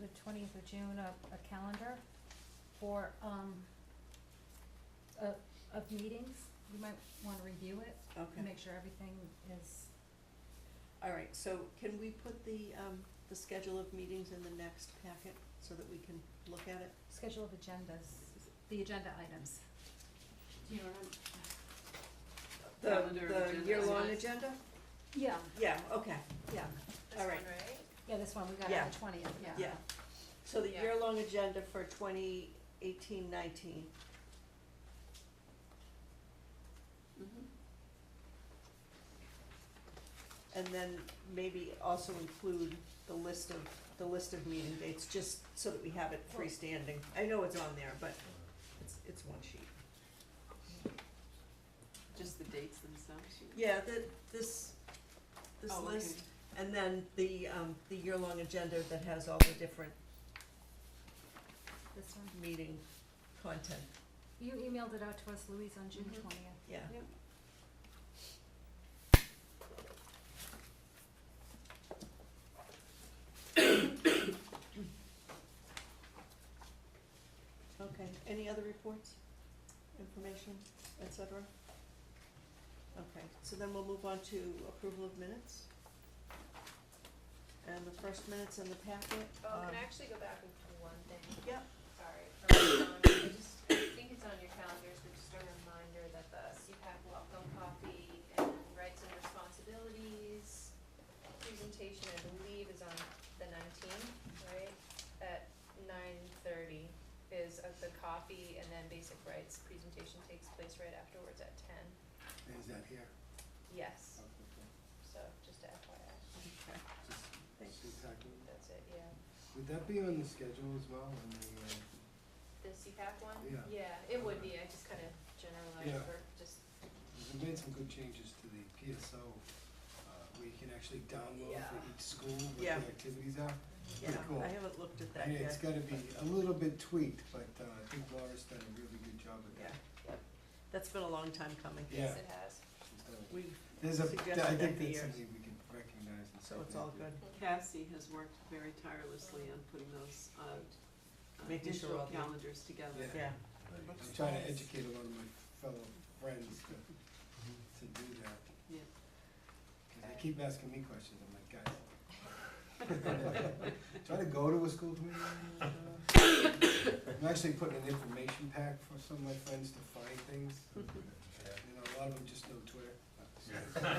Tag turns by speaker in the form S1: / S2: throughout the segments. S1: the twentieth of June, a, a calendar for, um, of, of meetings. You might wanna review it,
S2: Okay.
S1: and make sure everything is,
S2: All right, so can we put the, um, the schedule of meetings in the next packet so that we can look at it?
S1: schedule of agendas, the agenda items.
S3: Do you know what
S2: The-
S3: Calendar of
S2: The
S3: agendas.
S2: year-long agenda?
S1: Yeah.
S2: Yeah, okay, yeah,
S4: This
S2: all
S4: one,
S2: right,
S4: right?
S1: Yeah, this one, we got
S2: Yeah.
S1: on the twentieth, yeah.
S2: yeah. So the
S4: Yeah.
S2: year-long agenda for twenty eighteen nineteen,
S3: I'm?
S2: and then maybe also include the list of, the list of meeting dates, just so that we have it freestanding. I know it's on there, but it's, it's one sheet.
S3: Just the dates themselves? you-
S2: Yeah, the, this, this
S3: Oh, okay.
S2: list And then the, um, the year-long agenda that has all the different
S1: This one,
S2: meeting content,
S1: you emailed it out to us, Louise, on June
S3: Mhm.
S1: twentieth.
S2: yeah.
S3: Yep.
S2: Okay, any other reports, information, et cetera? Okay, so then we'll move on to approval of minutes. And the first minutes in the packet,
S4: Oh,
S2: um,
S4: can I actually go back and do one thing?
S2: Yep.
S4: Sorry. for my calendar. I just- I think it's on your calendars, but just a reminder that the CPAC welcome coffee and rights and responsibilities presentation, I believe, is on the nineteenth, right? At nine thirty is of the coffee, and then basic rights presentation takes place right afterwards at ten.
S5: Is that here?
S4: Yes,
S5: Okay.
S4: so just FYI,
S2: okay,
S5: Just
S2: Thanks.
S5: CPAC.
S4: that's it, yeah.
S5: Would that be on the schedule as well, on the, uh,
S4: The CPAC one?
S5: Yeah.
S4: it would be, I just kind of generalized
S5: Yeah.
S4: for just,
S5: we made some good changes to the PSO, uh, where you can actually download for
S4: Yeah.
S5: each school what the
S2: Yeah.
S5: activities are.
S2: yeah,
S5: Pretty cool.
S2: I haven't looked at that
S5: Yeah,
S2: yet.
S5: it's gotta be a little bit tweaked, but, uh, I think Laura's done a really good job with
S2: Yeah,
S5: that.
S4: Yep.
S2: that's been a long time coming.
S5: Yeah.
S4: yes, it has.
S5: She's done it.
S2: We've,
S5: There's a,
S2: suggested
S5: I think
S2: that for
S5: that's
S2: years.
S5: something we can recognize and say
S2: so it's
S5: thank
S2: all
S5: you.
S2: good,
S3: Cassie has worked very tirelessly on putting those, uh, uh,
S2: Making sure
S3: digital
S2: all the-
S3: calendars together.
S2: yeah.
S5: Yeah. I'm trying to educate a lot of my fellow friends to, to do that,
S3: Yeah.
S5: 'cause they keep asking me questions, I'm like, guys. Try to go to a school committee meeting. uh, I'm actually putting an information pack for some of my friends to find things, you know, a lot of them just know Twitter.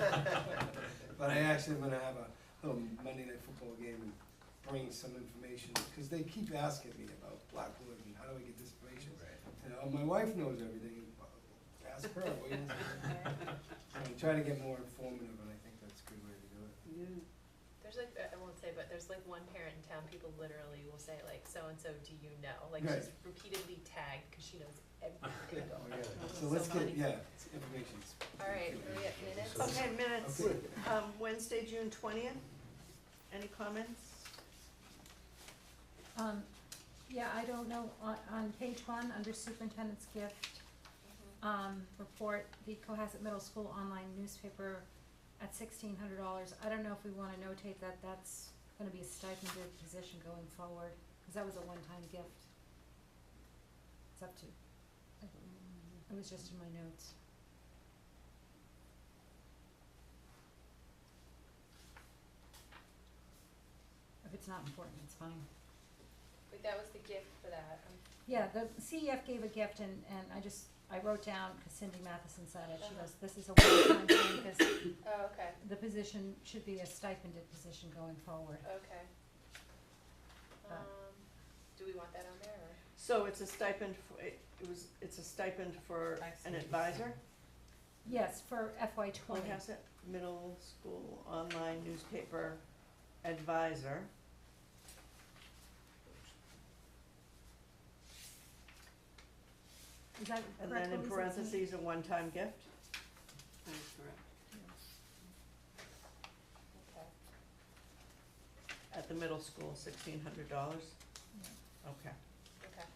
S5: But I actually am gonna have a little Monday night football game and bring some information, cause they keep asking me about Blackwood and how do I get this information? You know, my wife knows everything, ask her, what do you- I'm trying to get more informative, and I think that's a good way to do it.
S3: Yeah,
S4: There's like, I won't say, but there's like one parent in town, people literally will say like, so-and-so, do you know? Like
S5: Right.
S4: she's repeatedly tagged, cause she knows everything
S5: Oh,
S4: going on.
S5: yeah.
S4: It's
S5: So let's
S4: funny.
S5: get, yeah, it's information's.
S4: All right, we have minutes?
S2: Okay, minutes,
S5: Okay.
S2: um, Wednesday, June twentieth, any comments?
S1: Um, yeah, I don't know, on, on page one, under superintendent's gift,
S4: Mm-hmm.
S1: um, report, the Cohasset Middle School online newspaper at sixteen hundred dollars. I don't know if we wanna notate that that's gonna be a stipended position going forward, cause that was a one-time gift. It's up to, it was just in my notes. If it's not important, it's fine.
S4: Wait, that was the gift for that, um,
S1: Yeah, the CEF gave a gift and, and I just, I wrote down, cause Cindy Matheson said it, she goes, this is a one-time thing, cause
S4: oh, okay,
S1: the position should be a stipended position going forward.
S4: okay.
S1: Uh.
S4: Um, do we want that on there or?
S2: So it's a stipend, for it it was, it's a stipend for an advisor,
S1: Yes, for FY twenty,
S2: Cohasset Middle School Online Newspaper Advisor.
S1: is that correct,
S2: And then in
S1: Louise? That's me?
S2: parentheses, a one-time gift.
S3: that is correct.
S4: Okay.
S2: At the middle school, sixteen hundred dollars. Okay.
S4: Okay.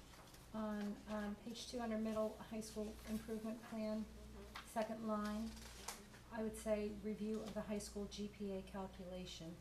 S1: On, um, page two under middle high school improvement plan,
S4: Mm-hmm.
S1: second line, I would say review of the high school GPA calculation.